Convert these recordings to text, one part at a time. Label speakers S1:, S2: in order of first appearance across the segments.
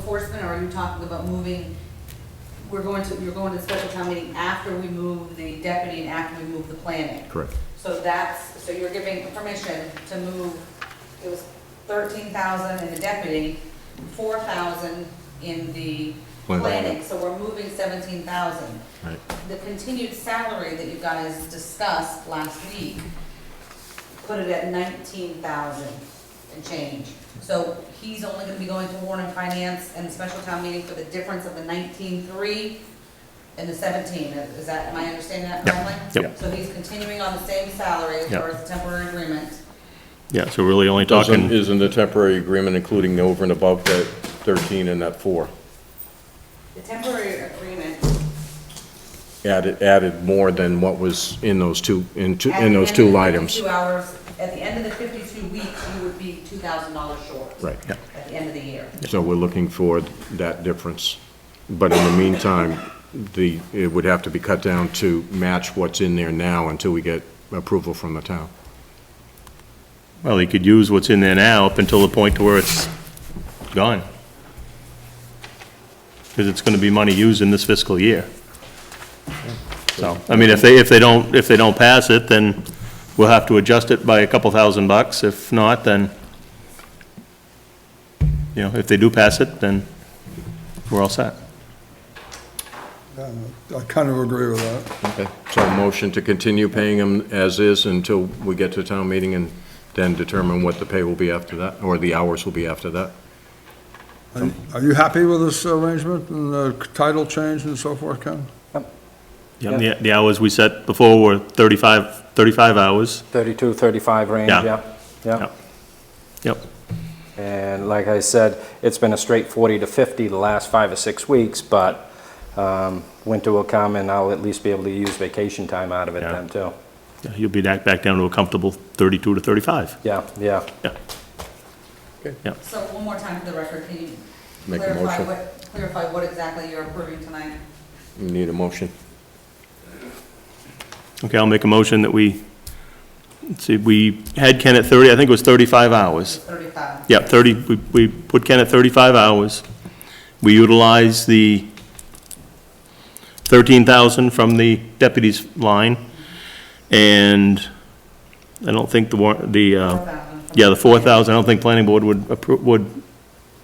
S1: enforcement, or are you talking about moving, we're going to, you're going to special town meeting after we move the deputy and after we move the planning?
S2: Correct.
S1: So that's, so you're giving permission to move, it was thirteen thousand in the deputy, four thousand in the
S2: Planning.
S1: planning, so we're moving seventeen thousand.
S2: Right.
S1: The continued salary that you guys discussed last week, put it at nineteen thousand and change. So he's only gonna be going to Warren and Finance and special town meeting for the difference of the nineteen-three and the seventeen, is that, am I understanding that
S2: Yep.
S1: correctly?
S2: Yep.
S1: So he's continuing on the same salary as
S2: Yep.
S1: far as the temporary agreement.
S2: Yeah, so really only
S3: Doesn't,
S2: talking,
S3: isn't the temporary agreement including the over and above that 13 and that 4?
S1: The temporary agreement.
S3: Added, added more than what was in those two, in two,
S1: at
S3: in
S1: the
S3: those
S1: end
S3: two
S1: of the
S3: items.
S1: 52 hours, at the end of the fifty-two weeks, you would be two thousand dollars short.
S3: Right.
S2: Yeah.
S1: At the end of the year.
S3: So we're looking for that difference. But in the meantime, the, it would have to be cut down to match what's in there now until we get approval from the town.
S2: well, he could use what's in there now up until the point to where it's gone. Because it's gonna be money used in this fiscal year. So, I mean, if they, if they don't, if they don't pass it, then we'll have to adjust it by a couple thousand bucks. If not, then, you know, if they do pass it, then we're all set.
S4: I kind of agree with that.
S3: Okay. So motion to continue paying them as is until we get to town meeting and then determine what the pay will be after that, or the hours will be after that.
S4: Are- Are you happy with this arrangement and the title change and so forth, Ken?
S2: Yeah, and the, the hours we set before were 35 35 hours.
S5: 32, 35 range,
S2: Yeah.
S5: yep, yep.
S2: Yep. Yep,
S5: And like I said, it's been a straight 40 to 50 the last five or six weeks, but um, winter will come and I'll at least be able to use vacation time out of it
S2: Yeah.
S5: then too.
S2: Yeah, you'll be back, back down to a comfortable 32 to 35.
S5: Yeah, yeah.
S2: Yeah,
S1: So one more time for the record, can you
S3: Make a
S1: clarify
S3: motion.
S1: what, clarify what exactly you're approving tonight?
S3: You Need a motion?
S2: okay, I'll make a motion that we, let's see, we had Ken at 30, I think it was 35 hours.
S1: Thirty-five.
S2: Yeah, 30, we, we put Ken at 35 hours. We utilize the 13,000 from the deputy's line, and I don't think the war, the,
S1: Four
S2: uh,
S1: thousand.
S2: yeah, the 4,000, I don't think planning board would, appro- would
S1: It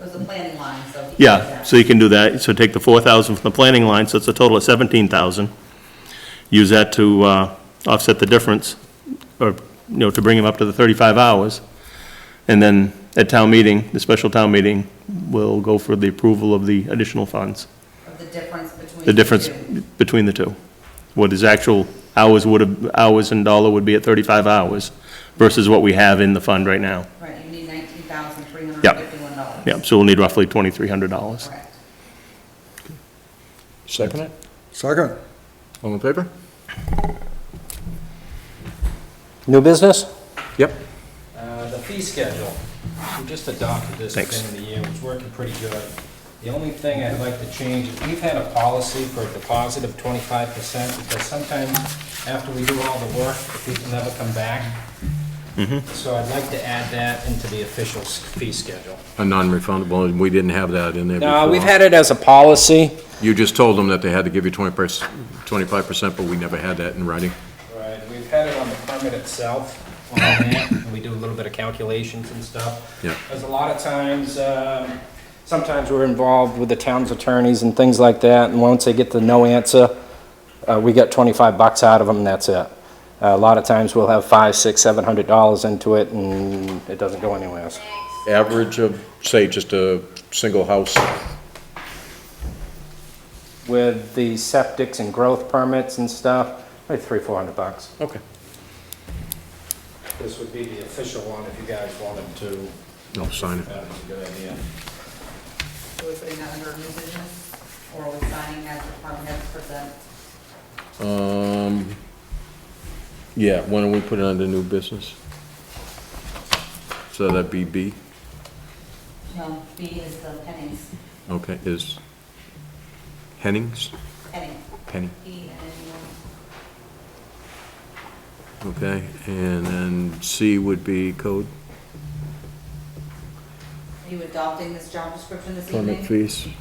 S1: was the planning line, so. he did
S2: Yeah,
S1: that.
S2: so you can do that, so take the four thousand from the planning line, so it's a total of seventeen thousand. Use that to, uh, offset the difference, or, you know, to bring him up to the thirty-five hours. And then at town meeting, the special town meeting, we'll go for the approval of the additional funds.
S1: Of the difference between.
S2: The difference
S1: two.
S2: between the two. What his actual hours would have, hours and dollar would be at thirty-five hours versus what we have in the fund right now.
S1: Right, you need nineteen thousand three hundred
S2: Yeah.
S1: and fifty-one dollars.
S2: Yeah, so we'll need roughly twenty-three hundred dollars.
S1: Correct.
S3: Second it.
S4: Second?
S3: All in favor?
S5: New business?
S3: Yep.
S6: Uh, The fee schedule, we just adopted this at the
S2: Thanks.
S6: end of the year, it's working pretty good. The only thing I'd like to change, is we've had a policy for a deposit of twenty-five percent, because sometimes after we do all the work, the people never come back. So I'd like to add that into the official s- fee schedule.
S3: A non-refundable, and we didn't have that in there before.
S5: No, we've had it as a policy.
S3: You just told them that they had to give you 20 25 percent, but we never had that in writing.
S6: Right, we've had it on the permit itself, on that, and we do a little bit of calculations and stuff.
S3: Yeah.
S6: Because a lot of times, um, sometimes we're involved with the town's attorneys and things like that, and once they get the no answer, uh, we get 25 bucks out of them, and that's it. A lot of times, we'll have five, six, seven hundred dollars into it, and it doesn't go anywhere else.
S3: Average of, say, just a single house,
S5: With the septics and growth permits and stuff, like three, 400 bucks.
S3: okay.
S6: This would be the official one if you guys wanted to,
S3: I'll sign it.
S6: that was a good idea.
S1: So we're putting that under new business, or are we signing as department heads present?
S3: Um, yeah, why don't we put it under new business? So that'd be B,
S1: No, B is the pennies,
S3: okay, is Hennings,
S1: penny,
S3: Penny,
S1: E and then
S3: okay? And then C would be code,
S1: you, you adopting this job description this evening?
S3: permit fees.